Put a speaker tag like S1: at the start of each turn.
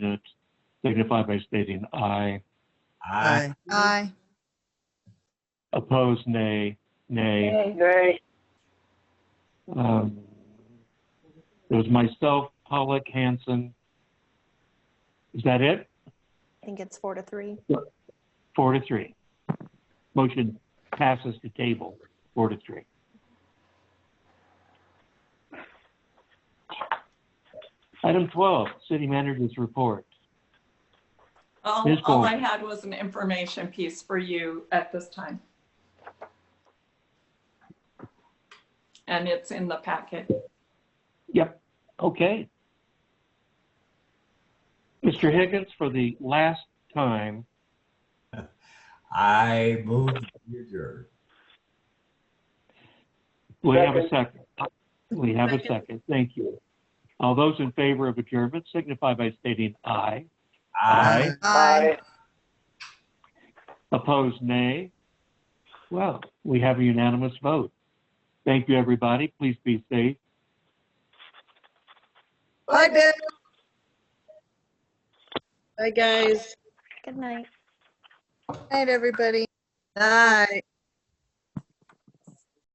S1: minutes signify by stating aye.
S2: Aye.
S3: Aye.
S1: Opposed, nay. Nay.
S4: Nay.
S1: Um, It was myself, Pollock, Hanson. Is that it?
S5: I think it's four to three.
S1: Four to three. Motion passes to table, four to three. Item 12, City Manager's Report.
S6: All,
S1: Ms.
S6: all
S1: Bowen.
S6: I had was an information piece for you at this time. And it's in the packet.
S1: Yep, okay. Mr. Higgins, for the last time,
S2: I move to adjourn.
S1: we have a second. We have a second, thank you. All those in favor of adjournment signify by stating aye.
S2: Aye.
S3: Aye.
S1: Opposed, nay. Well, we have a unanimous vote. Thank you, everybody. Please be safe.
S3: Bye, Bill.
S4: Bye, guys.
S5: Good night.
S3: Night, everybody. Night.